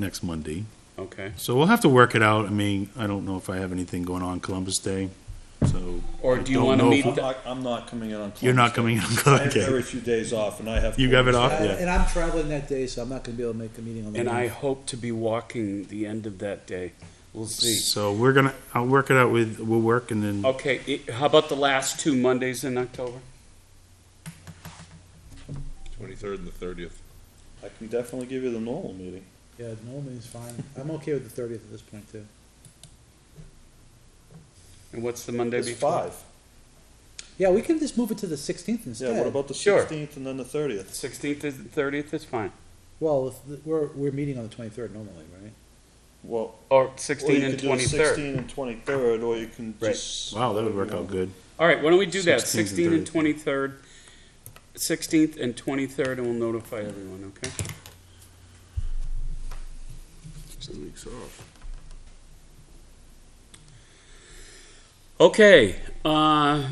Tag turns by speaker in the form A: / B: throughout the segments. A: next Monday.
B: Okay.
A: So we'll have to work it out. I mean, I don't know if I have anything going on Columbus Day, so.
B: Or
A: I
B: do you
A: don't
B: wanna
A: know
B: meet
A: if-
B: the-
C: I'm not, I'm not coming in on.
A: You're not
C: Columbus
A: coming in on
C: Day. I
A: Columbus
C: have very
A: Day.
C: few days off, and I have.
A: You have it off?
D: Uh,
A: Yeah.
D: And I'm traveling that day, so I'm not gonna be able to make a meeting on the.
B: And I
D: ninth.
B: hope to be walking the end of that day. We'll see.
A: So we're gonna, I'll work it out with, we'll work and then,
B: Okay, i- how about the last two Mondays in October?
E: Twenty-third and the thirtieth.
C: I can definitely give you the normal meeting.
D: Yeah, normally it's fine. I'm okay with the thirtieth at this point too.
B: And what's the Monday
C: It's
B: before?
C: five.
D: Yeah, we can just move it to the sixteenth instead.
C: Yeah, what about the
B: Sure.
C: sixteenth and then the thirtieth?
B: Sixteenth and thirtieth is fine.
D: Well, if the- we're, we're meeting on the twenty-third normally, right?
C: Well,
B: Or
C: or
B: sixteen
C: you
B: and
C: could do the
B: twenty-third.
C: sixteen and twenty-third, or you can
B: Right.
C: just.
A: wow, that would work out good.
B: All right, why don't we do that?
A: 16th and
B: Sixteen and twenty-third, sixteenth and twenty-third, and we'll notify everyone, okay?
E: Two weeks off.
B: Okay, uh,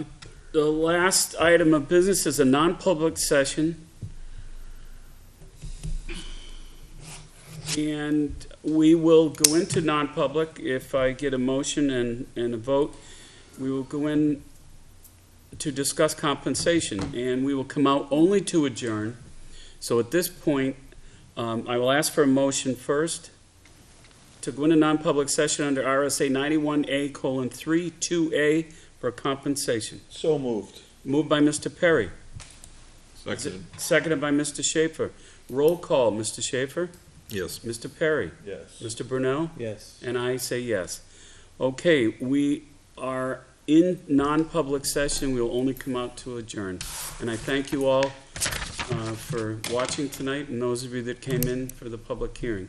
B: the last item of business is a non-public session. And we will go into non-public if I get a motion and, and a vote. We will go in to discuss compensation, and we will come out only to adjourn. So at this point, um, I will ask for a motion first to go into non-public session under RSA ninety-one A colon three two A for compensation.
C: So moved.
B: Moved by Mr. Perry,
E: Second.
B: seconded by Mr. Schaefer. Roll call, Mr. Schaefer,
E: Yes.
B: Mr. Perry,
C: Yes.
B: Mr. Brunel,
D: Yes.
B: and I say yes. Okay, we are in non-public session. We will only come out to adjourn. And I thank you all uh, for watching tonight and those of you that came in for the public hearing.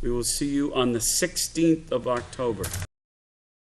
B: We will see you on the sixteenth of October.